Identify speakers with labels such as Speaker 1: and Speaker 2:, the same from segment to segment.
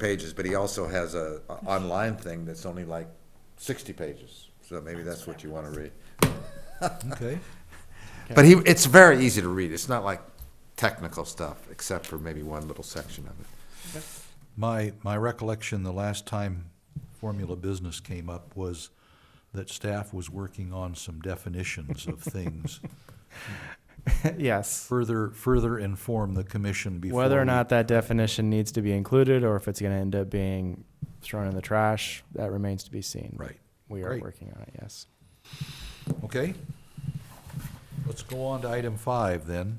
Speaker 1: pages, but he also has a, a online thing that's only like sixty pages. So maybe that's what you wanna read.
Speaker 2: Okay.
Speaker 1: But he, it's very easy to read. It's not like technical stuff, except for maybe one little section of it.
Speaker 2: My, my recollection, the last time formula business came up was that staff was working on some definitions of things.
Speaker 3: yes.
Speaker 2: Further, further inform the commission before.
Speaker 3: Whether or
Speaker 2: we-
Speaker 3: not that definition needs to be included or if it's going to end up being thrown in the trash, that remains to be seen.
Speaker 2: Right.
Speaker 3: We are
Speaker 2: Great.
Speaker 3: working on it, yes.
Speaker 2: Okay? Let's go on to item five then.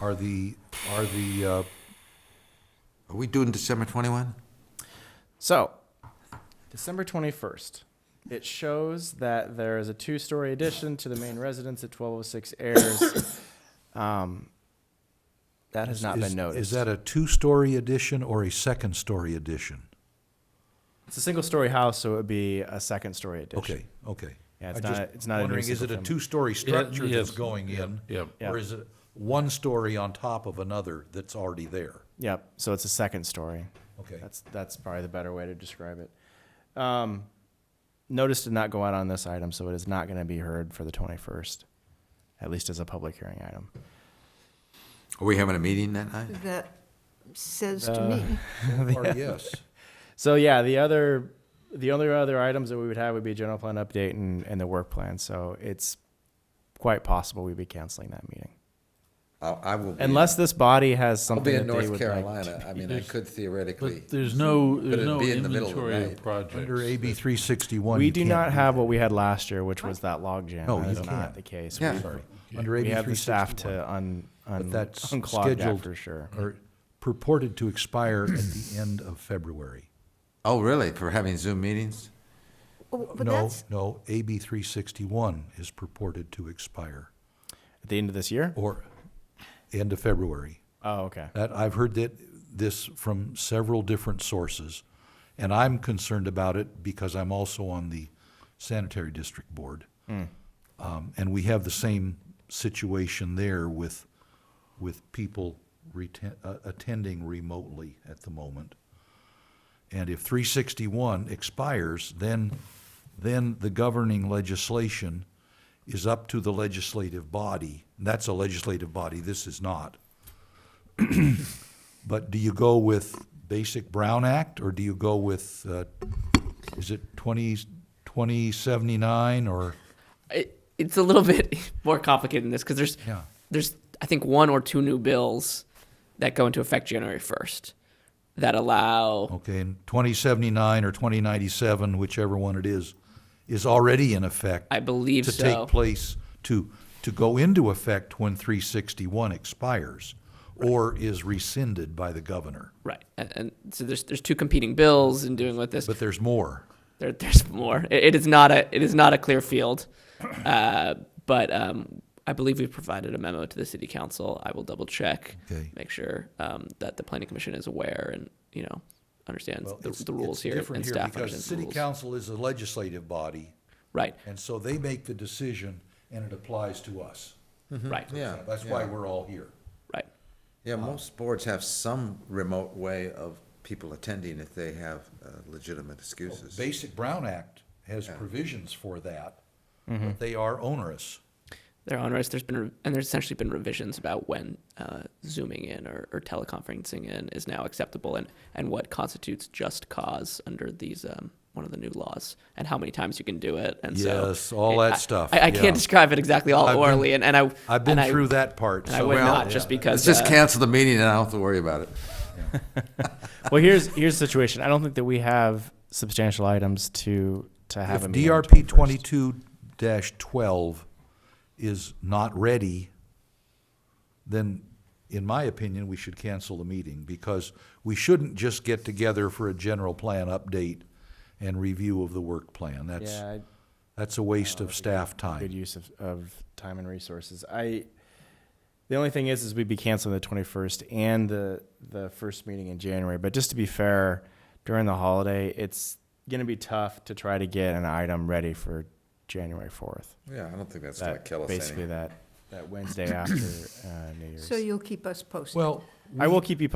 Speaker 2: Are the, are the, uh,
Speaker 1: Are we doing December twenty-one?
Speaker 3: So, December 21st, it shows that there is a two story addition to the main residence at 1206 Airs. um, that has not
Speaker 2: is-
Speaker 3: been noticed.
Speaker 2: Is that a two-story addition or a second-story addition?
Speaker 3: it's a single story house, so it would be a second story addition.
Speaker 2: Okay, okay.
Speaker 3: Yeah, it's
Speaker 2: I'm just
Speaker 3: not- it's not a new
Speaker 2: Wondering, is it a
Speaker 3: single-family.
Speaker 2: two-story structure that's
Speaker 4: yes,
Speaker 2: going in?
Speaker 4: yep,
Speaker 3: yep.
Speaker 2: Or is it one story on top of another that's already there?
Speaker 3: Yep. So it's a second story.
Speaker 2: Okay.
Speaker 3: That's that's probably the better way to describe it. Um, notice did not go out on this item, so it is not going to be heard for the 21st, at least as a public hearing item.
Speaker 1: Are we having a meeting that night?
Speaker 5: That says to me,
Speaker 2: Or yes,
Speaker 3: So yeah, the other the only other items that we would have would be general plan update and, and the work plan. So it's quite possible we'd be canceling that meeting
Speaker 1: I, Uh, I will be, I'll
Speaker 3: unless this body has
Speaker 1: be
Speaker 3: something
Speaker 1: in
Speaker 3: that they
Speaker 1: North
Speaker 3: would like.
Speaker 1: Carolina. I mean, I
Speaker 4: There's-
Speaker 1: could theoretically,
Speaker 4: But there's no,
Speaker 1: it'd
Speaker 4: there's no
Speaker 1: be in the middle of the
Speaker 4: inventory
Speaker 1: night.
Speaker 4: of projects.
Speaker 2: under AB three sixty-one.
Speaker 3: We do not have what we had last year, which was that logjam.
Speaker 2: No,
Speaker 3: that
Speaker 2: you
Speaker 3: is not
Speaker 2: can't.
Speaker 3: the case.
Speaker 1: Yeah.
Speaker 3: We-
Speaker 2: Sorry, under
Speaker 3: We
Speaker 2: AB
Speaker 3: have
Speaker 2: three
Speaker 3: the staff
Speaker 2: sixty-one.
Speaker 3: to un, un,
Speaker 2: But that's
Speaker 3: unclog that
Speaker 2: scheduled-
Speaker 3: for sure.
Speaker 2: Or purported to expire at the end of February.
Speaker 1: oh, really, for having Zoom meetings?
Speaker 5: Oh, but
Speaker 2: No,
Speaker 5: that's,
Speaker 2: no, AB three sixty-one is purported to expire,
Speaker 3: At the end of this year?
Speaker 2: or end of February.
Speaker 3: Oh, okay.
Speaker 2: That, I've heard that, this from several different sources, and I'm concerned about it because I'm also on the sanitary district board. Um, and we have the same situation there with, with people reten- uh, attending remotely at the moment. And if three sixty-one expires, then, then the governing legislation is up to the legislative body. That's a legislative body, this is not. But do you go with basic Brown Act, or do you go with, uh, is it 20 2079, or,
Speaker 6: it, it's a little bit more complicated than this because there's
Speaker 2: Yeah.
Speaker 6: there's I think one or two new bills that go into effect January first that allow
Speaker 2: okay, and 2079 or 2097, whichever one it is, is already in effect?
Speaker 6: I believe
Speaker 2: To
Speaker 6: so.
Speaker 2: take place, to, to go into effect when 361 expires, or is rescinded by the governor.
Speaker 6: right and, and so there's there's two competing bills and doing with this
Speaker 2: But there's more.
Speaker 6: there, there's more it, it is not a it is not a clear field uh, but um, I believe we've provided a memo to the city council I will double check
Speaker 2: Okay.
Speaker 6: make sure um, that the planning commission is aware and you know understands
Speaker 2: Well,
Speaker 6: the,
Speaker 2: it's-
Speaker 6: the rules
Speaker 2: it's
Speaker 6: here
Speaker 2: different
Speaker 6: and staff
Speaker 2: Because the
Speaker 6: understands the
Speaker 2: city
Speaker 6: rules
Speaker 2: council is a legislative body,
Speaker 6: right
Speaker 2: and so they make the decision, and it applies to us.
Speaker 6: right
Speaker 1: Yeah.
Speaker 2: That's why we're all here.
Speaker 6: right
Speaker 1: Yeah, most boards have some remote way of people attending if they have uh, legitimate excuses.
Speaker 2: Basic Brown Act has provisions for that,
Speaker 6: Mm-hmm.
Speaker 2: but they are onerous.
Speaker 6: They're on rights. There's been re- and there's essentially been revisions about when uh, zooming in or, or teleconferencing in is now acceptable and, and what constitutes just cause under these um, one of the new laws and how many times you can do it and so
Speaker 2: Yes, all that
Speaker 6: I-
Speaker 2: stuff,
Speaker 6: I, I
Speaker 2: yeah.
Speaker 6: can't describe it exactly all
Speaker 2: I've been-
Speaker 6: orally and, and I
Speaker 2: I've been
Speaker 6: and I-
Speaker 2: through that part,
Speaker 6: and I
Speaker 2: so-
Speaker 6: would
Speaker 1: Well,
Speaker 6: not just
Speaker 1: Let's
Speaker 6: because
Speaker 1: just
Speaker 6: uh,
Speaker 1: cancel the meeting and I don't have to worry about it.
Speaker 3: Well, here's, here's the situation. I don't think that we have substantial items to, to have
Speaker 2: If
Speaker 3: a meeting. on the
Speaker 2: DRP
Speaker 3: 21st.
Speaker 2: twenty-two twelve is not ready, then in my opinion, we should cancel the meeting because we shouldn't just get together for a general plan update and review of the work plan. That's,
Speaker 3: Yeah,
Speaker 2: that's a waste of staff time.
Speaker 3: good use of, of time and resources. I, the only thing is, is we'd be canceling the 21st and the, the first meeting in January. But just to be fair, during the holiday, it's going to be tough to try to get an item ready for January 4th.
Speaker 1: Yeah, I don't think that's gonna
Speaker 3: That,
Speaker 1: kill us any.
Speaker 3: basically that uh,
Speaker 2: that Wednesday after uh, New Year's.
Speaker 3: So you'll keep us posted?
Speaker 5: Well,
Speaker 2: I will keep you